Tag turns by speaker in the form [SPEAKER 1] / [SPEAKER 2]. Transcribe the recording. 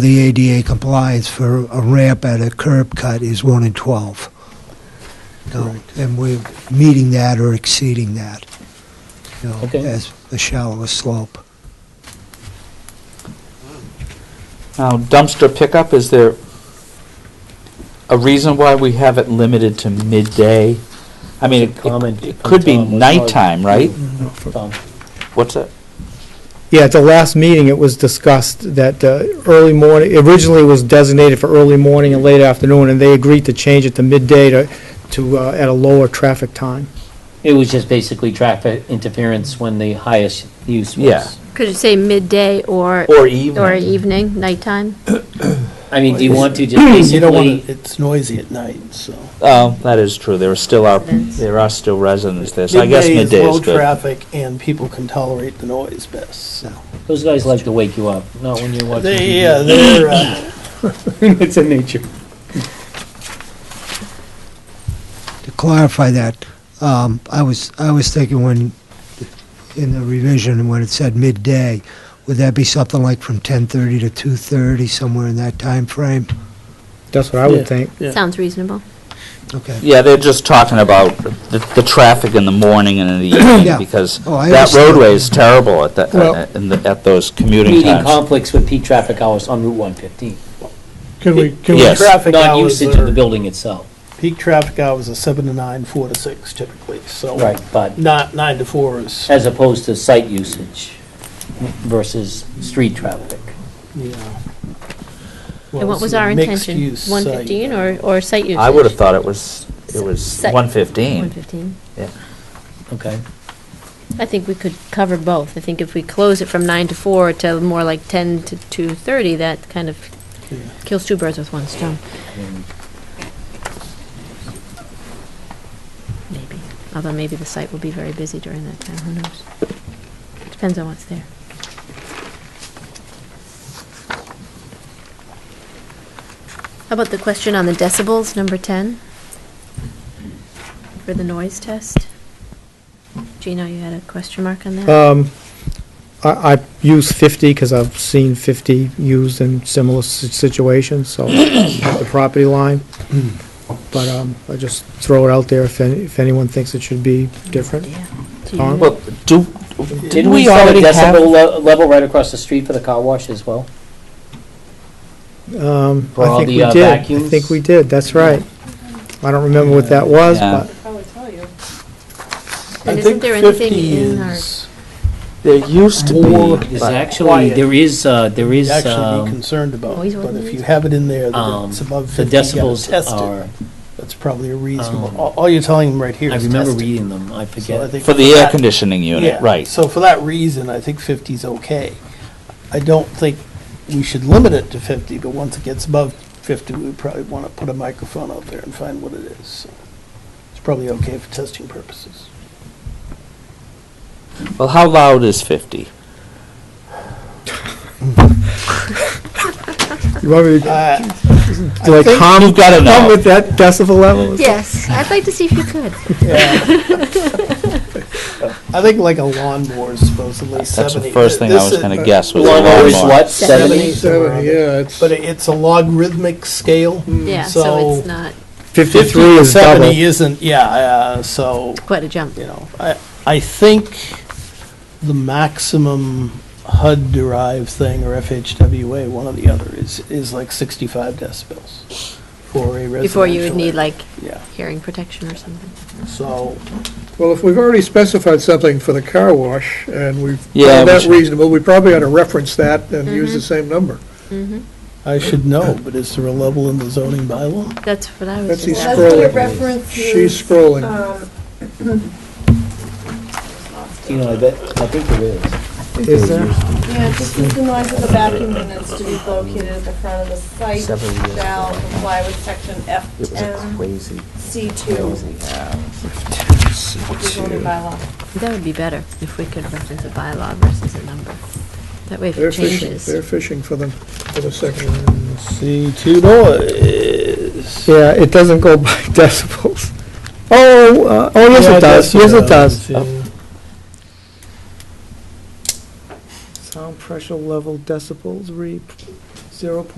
[SPEAKER 1] The ADA compliance for a ramp at a curb cut is 1 in 12. No, And we're meeting that or exceeding that, you know,
[SPEAKER 2] Okay.
[SPEAKER 1] as the shallower slope.
[SPEAKER 2] Now dumpster pickup, is there a reason why we have it limited to midday? I mean, it-
[SPEAKER 3] Comment
[SPEAKER 2] it it could be
[SPEAKER 3] from Tom, what's wrong?
[SPEAKER 2] nighttime, right?
[SPEAKER 3] Mm-hmm. Tom,
[SPEAKER 2] What's that?
[SPEAKER 4] Yeah, at the last meeting, it was discussed that uh, early morning, originally it was designated for early morning and late afternoon, and they agreed to change it to midday to, to, uh, at a lower traffic time.
[SPEAKER 3] it was just basically traffic interference when the highest use was.
[SPEAKER 2] Yeah.
[SPEAKER 5] Could you say midday or,
[SPEAKER 2] Or
[SPEAKER 5] or e-
[SPEAKER 2] evening?
[SPEAKER 5] evening, nighttime?
[SPEAKER 3] I mean, do you want to just
[SPEAKER 6] You don't
[SPEAKER 3] basically,
[SPEAKER 6] want, it's noisy at night, so.
[SPEAKER 2] Oh, that is true. There are still are,
[SPEAKER 5] Residents.
[SPEAKER 2] there are still residents there, so I guess
[SPEAKER 6] Midday
[SPEAKER 2] midday is
[SPEAKER 6] Low
[SPEAKER 2] good.
[SPEAKER 6] traffic and people can tolerate the noise best, so.
[SPEAKER 3] those guys like to wake you up, not when you're watching TV.
[SPEAKER 6] They, yeah, they're, uh,
[SPEAKER 4] It's in nature.
[SPEAKER 1] To clarify that, um, I was, I was thinking when, in the revision, when it said midday, would that be something like from 10:30 to 2:30, somewhere in that time frame?
[SPEAKER 4] That's what I
[SPEAKER 6] Yeah.
[SPEAKER 4] would think.
[SPEAKER 6] Yeah.
[SPEAKER 5] Sounds reasonable.
[SPEAKER 1] Okay.
[SPEAKER 2] Yeah, they're just talking about the, the traffic in the morning and in the
[SPEAKER 1] Yeah.
[SPEAKER 2] evening, because
[SPEAKER 1] Oh, I
[SPEAKER 2] that
[SPEAKER 1] understand.
[SPEAKER 2] roadway is terrible at that,
[SPEAKER 4] Well-
[SPEAKER 2] at- in the- at those commuting
[SPEAKER 3] Meeting
[SPEAKER 2] times.
[SPEAKER 3] conflicts with peak traffic hours on Route 115.
[SPEAKER 6] can we, can we,
[SPEAKER 2] Yes.
[SPEAKER 6] traffic hours
[SPEAKER 3] Non-usage of the
[SPEAKER 6] are,
[SPEAKER 3] building itself.
[SPEAKER 6] peak traffic hours are seven to nine, four to six typically, so.
[SPEAKER 3] But
[SPEAKER 6] Not, nine to four is,
[SPEAKER 3] as opposed to site usage versus street traffic.
[SPEAKER 6] yeah.
[SPEAKER 5] And what was our intention? 115 or, or site usage?
[SPEAKER 2] uh, I would have thought it was, it was
[SPEAKER 5] Site-
[SPEAKER 2] 115.
[SPEAKER 5] 115.
[SPEAKER 3] Okay.
[SPEAKER 5] I think we could cover both. I think if we close it from 9 to 4 to more like 10 to 2:30, that kind of
[SPEAKER 6] Yeah.
[SPEAKER 5] kills two birds with one stone, maybe. Although maybe the site will be very busy during that time, who knows? Depends on what's there. How about the question on the decibels, number 10? For the noise test? Gino, you had a question mark on that?
[SPEAKER 4] Um, I, I use 50 because I've seen 50 used in similar si- situations, so, at the property line. But um, I just throw it out there if, any- if anyone thinks it should be different.
[SPEAKER 5] Yeah. Do
[SPEAKER 4] Tom?
[SPEAKER 5] you-
[SPEAKER 2] Well, do,
[SPEAKER 3] Didn't
[SPEAKER 2] didn't
[SPEAKER 3] we
[SPEAKER 2] we
[SPEAKER 3] set a
[SPEAKER 2] already
[SPEAKER 3] decibel
[SPEAKER 2] have?
[SPEAKER 3] le- level right across the street for the car wash as well?
[SPEAKER 4] Um,
[SPEAKER 3] For all
[SPEAKER 4] I think
[SPEAKER 3] the,
[SPEAKER 4] we
[SPEAKER 3] uh,
[SPEAKER 4] did. I
[SPEAKER 3] vacuums?
[SPEAKER 4] think we did, that's right. I don't remember what that was,
[SPEAKER 2] Yeah.
[SPEAKER 4] but
[SPEAKER 5] And isn't there anything in our,
[SPEAKER 2] There used to
[SPEAKER 6] More
[SPEAKER 2] be,
[SPEAKER 3] There's
[SPEAKER 2] but-
[SPEAKER 3] actually, there is, uh, there is,
[SPEAKER 6] Actually be
[SPEAKER 3] um,
[SPEAKER 6] concerned about,
[SPEAKER 5] Always
[SPEAKER 6] but if
[SPEAKER 5] ordinance.
[SPEAKER 6] you have it in there that
[SPEAKER 3] um,
[SPEAKER 6] it's above
[SPEAKER 3] the
[SPEAKER 6] fifty, you gotta
[SPEAKER 3] decibels
[SPEAKER 6] test it.
[SPEAKER 3] are,
[SPEAKER 6] That's probably a reasonable,
[SPEAKER 3] Um,
[SPEAKER 6] all all you're telling them right here
[SPEAKER 3] I
[SPEAKER 6] is
[SPEAKER 3] remember
[SPEAKER 6] test it.
[SPEAKER 3] reading them, I
[SPEAKER 6] So I
[SPEAKER 3] forget.
[SPEAKER 6] think
[SPEAKER 2] for the air
[SPEAKER 6] that-
[SPEAKER 2] conditioning unit,
[SPEAKER 6] Yeah,
[SPEAKER 2] right.
[SPEAKER 6] So for that reason, I think 50 is okay. I don't think we should limit it to 50, but once it gets above 50, we probably want to put a microphone out there and find what it is. So It's probably okay for testing purposes.
[SPEAKER 2] Well, how loud is 50?
[SPEAKER 4] you want me to
[SPEAKER 6] Uh,
[SPEAKER 4] Do I
[SPEAKER 6] think-
[SPEAKER 4] calm,
[SPEAKER 2] You've gotta
[SPEAKER 4] come
[SPEAKER 2] know.
[SPEAKER 4] with that decibel level?
[SPEAKER 5] yes, I'd like to see if you could.
[SPEAKER 6] yeah. I think like a lawnmower is supposedly 70.
[SPEAKER 2] That's the first thing I
[SPEAKER 6] This
[SPEAKER 2] was
[SPEAKER 6] is-
[SPEAKER 2] gonna guess was
[SPEAKER 6] Lawnmower
[SPEAKER 2] lawnmower.
[SPEAKER 3] Lawnmower is what, seventy?
[SPEAKER 5] Seventy.
[SPEAKER 6] 70,
[SPEAKER 7] yeah, it's, hmm.
[SPEAKER 6] But it- it's a logarithmic scale.
[SPEAKER 5] Yeah, so it's not
[SPEAKER 4] Fifty-three is double.
[SPEAKER 6] 70 isn't, yeah, uh, so.
[SPEAKER 5] quite a jump.
[SPEAKER 6] you know, I, I think the maximum HUD-derived thing, or FHWA, one or the other, is, is like 65 decibels for a residential.
[SPEAKER 5] Before you would need
[SPEAKER 6] area.
[SPEAKER 5] like
[SPEAKER 6] Yeah,
[SPEAKER 5] hearing protection or something.
[SPEAKER 6] so,
[SPEAKER 7] well, if we've already specified something for the car wash, and we've
[SPEAKER 2] Yeah,
[SPEAKER 7] found
[SPEAKER 2] we
[SPEAKER 7] that
[SPEAKER 2] should-
[SPEAKER 7] reasonable, we probably ought to reference that and
[SPEAKER 5] Mm-hmm.
[SPEAKER 7] use the same number.
[SPEAKER 6] I should know, but is there a level in the zoning bylaw?
[SPEAKER 5] That's what I was
[SPEAKER 7] That's
[SPEAKER 5] just
[SPEAKER 7] he's
[SPEAKER 8] That's where it
[SPEAKER 7] scrolling. She's
[SPEAKER 8] references,
[SPEAKER 5] uh,
[SPEAKER 7] scrolling.
[SPEAKER 8] um,
[SPEAKER 3] You know, I bet, I think there is.
[SPEAKER 4] Is there?
[SPEAKER 8] yeah, just as the noise of the vacuum units to be located at the front of the site
[SPEAKER 3] Several years
[SPEAKER 8] shall
[SPEAKER 3] ago.
[SPEAKER 8] comply with section F ten
[SPEAKER 3] crazy.
[SPEAKER 8] C two. Zoning bylaw.
[SPEAKER 5] That would be better if we could reference a bylaw versus a number. That way if
[SPEAKER 7] They're
[SPEAKER 5] it
[SPEAKER 7] fishing,
[SPEAKER 5] changes.
[SPEAKER 7] they're fishing for the, for the second.
[SPEAKER 6] C2 noise.
[SPEAKER 4] Yeah, it doesn't go by decibels. Oh, uh, oh, yes,
[SPEAKER 6] Yeah,
[SPEAKER 4] it does, yes, it does. Oh.
[SPEAKER 6] yeah.
[SPEAKER 4] Sound pressure level decibels re,
[SPEAKER 6] zero point